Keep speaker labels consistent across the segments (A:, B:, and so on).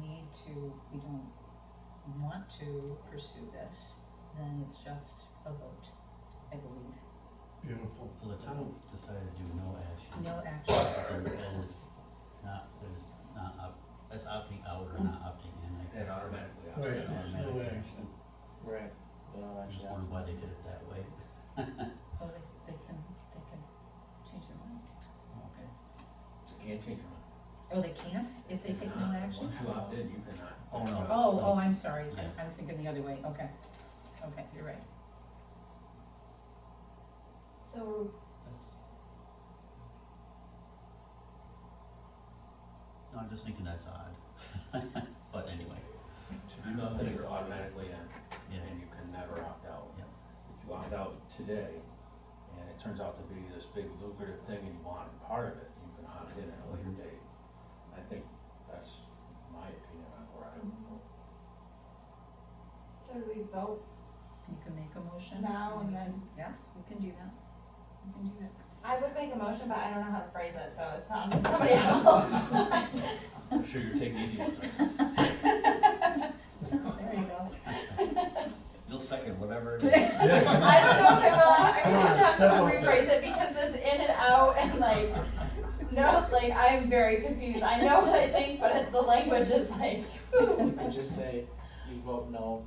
A: to, we don't want to pursue this, then it's just a vote, I believe.
B: Beautiful.
C: So the town decided to do no action.
A: No action.
C: So that is not, that is not, op- that's opting out or not opting in, I guess.
D: That automatically
B: Right,
D: opts
B: there's
C: It's an
D: in.
B: no
C: automatic
B: action.
C: action.
D: Right. Well,
C: I just
D: actually,
C: wondered why they did it that way.
A: Well, Oh, they, s- they can, they can change their mind.
C: Okay.
D: you can't change your mind.
A: Oh, they can't if they take no
D: Cannot.
A: action?
D: Once you opt in, you cannot.
C: Oh, no.
A: Oh, oh, I'm sorry,
C: Yeah.
A: I, I was thinking the other way, okay, okay, you're right.
E: So
C: That's. No, I'm just thinking that's odd. But anyway,
D: To do nothing, you're automatically in,
C: yeah,
D: and you can never opt out.
C: Yep.
D: If you opt out today, and it turns out to be this big lucrative thing and you want part of it, you can opt in at a later date. I think that's my opinion on where I would
A: Mm-hmm.
D: vote.
E: so do we vote?
A: You can make a motion.
E: Now and then.
A: Yes, we can do that, we can do that.
E: I would make a motion, but I don't know how to phrase it, so it's not somebody else.
D: I'm sure you're taking easy ones.
A: There you go.
C: you'll second whatever it is.
E: I don't know if I will. I
B: Come
E: would
B: on,
E: have to have
B: step
E: someone
B: up.
E: rephrase it because this in and out and like, no, like I'm very confused. I know what I think, but the language is like.
F: You can just say, you vote no,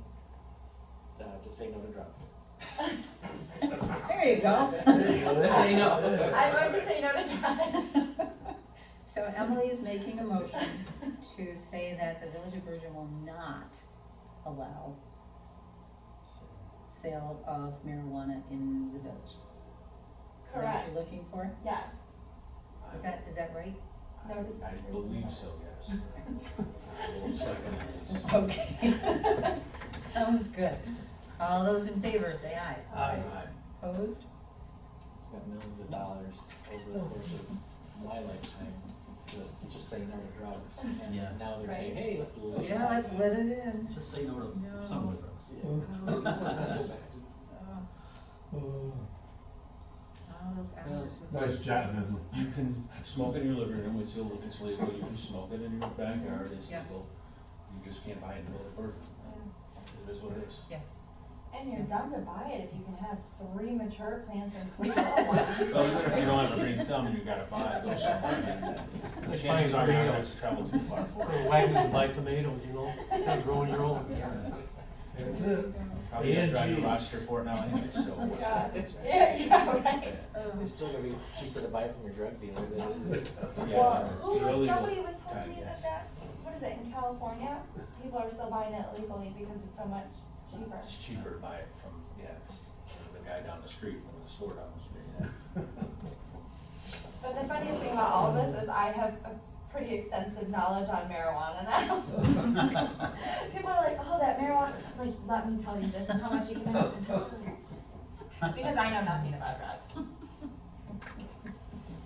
F: uh, just say no to drugs.
A: There you go.
F: Just say no.
E: I'm going to say no to drugs.
A: So Emily is making a motion to say that the village of Virgin will not allow
C: So,
A: sale of marijuana in the village. Is that what
E: Correct.
A: you're looking for?
E: Yes.
A: Is that, is that right?
D: I-
E: No dispensaries.
D: I believe so, yes. I will second at least.
A: Okay. Sounds good. All those in favor, say aye.
C: Aye.
A: Opposed?
F: Spent millions of dollars over the course of my lifetime to just say no to drugs.
C: Yeah.
F: And now they're saying,
E: Right.
F: hey, let's.
A: Yeah, let's let it in.
C: Just say no
A: No.
C: to some of the drugs.
A: Oh,
F: It's not so bad.
A: oh,
B: Uh,
A: All those hours. was-
B: Nice job, Emily.
D: You can smoke in your living room, it's illegal, it's legal, you can smoke it in your backyard, it's
A: Yes.
D: legal. You just can't buy it in the middle of Bergen. It is what it is.
A: Yes.
E: And you're dumb to buy it if you can have three mature plants and three little ones.
D: Well, even if you don't have a green thumb and you gotta buy it, go somewhere. The chances are you're not going to travel too far for it.
G: Sort of wagging to buy tomatoes, you know, kind of growing your own.
B: That's
A: There
B: it.
A: you go.
D: Probably gonna drive to
B: ANG.
D: Rochester for it now anyway, so what's
E: Yeah.
D: that?
E: Yeah, yeah, right.
A: Oh,
F: It's still gonna be cheaper to buy it from your drug dealer than it is.
D: Yeah, it's
E: Who was- somebody
D: illegal.
E: was telling me that that, what is it, in California, people are still buying it legally because it's so much cheaper.
D: It's cheaper to buy it from, yeah, the guy down the street, from the store down the street, yeah.
E: But the funniest thing about all of this is I have a pretty extensive knowledge on marijuana now. People are like, oh, that marijuana, like, let me tell you this is how much you can have. Because I know nothing about drugs.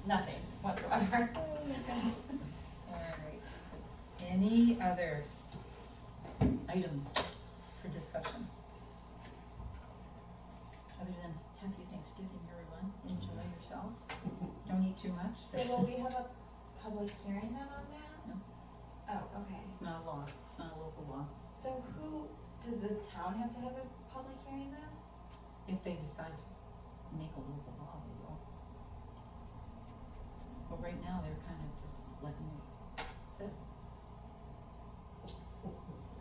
E: Nothing whatsoever.
A: All right. Any other items for discussion? Other than happy Thanksgiving, everyone. Enjoy yourselves. Don't eat too much.
E: So will we have a public hearing then on that?
A: No.
E: Oh, okay.
A: It's not a law. It's not a local law.
E: So who, does the town have to have a public hearing then?
A: If they decide to make a local law, they will. But right now, they're kind of just letting it sit.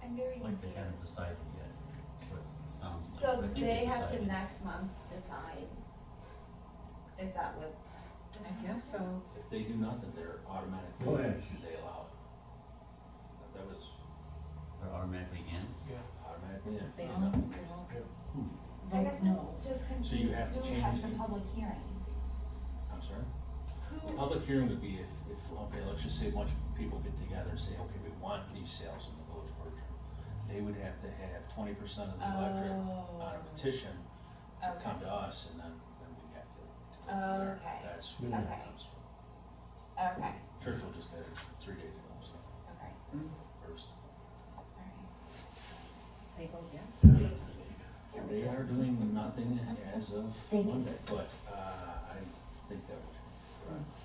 E: I'm very
C: It's like they
E: confused.
C: haven't decided yet, so it's- it sounds like. but I
E: So
C: think
E: they have to
C: decided.
E: next month decide. Is that what?
A: I guess so.
D: If they do nothing, they're
B: Oh,
D: automatically,
B: yeah.
D: they allow it. That was
C: They're automatically in?
D: automatically, yeah.
A: If they don't, if they don't
C: Hmm.
E: I
A: vote
E: guess
A: no.
E: I'm just
D: So you
E: confused,
D: have to
E: who has
D: change
E: the
D: it.
E: public hearing?
D: I'm sorry? The
E: Who,
D: Public hearing would be if, if, okay, let's just say a bunch of people get together and say, okay, we want these sales in the village of Bergen. They would have to have twenty percent of the electorate on
E: Oh.
D: a petition to
E: Okay.
D: come to us, and then, then we have to. to go from there.
E: Okay.
D: That's
B: Yeah.
D: where it
E: Okay.
D: comes from.
E: okay,
D: Churchill just did it three days ago, so,
E: okay,
D: first.
E: alright.
A: They vote yes.
D: They are doing nothing as of Monday, but, uh, I think that would,
E: Mm.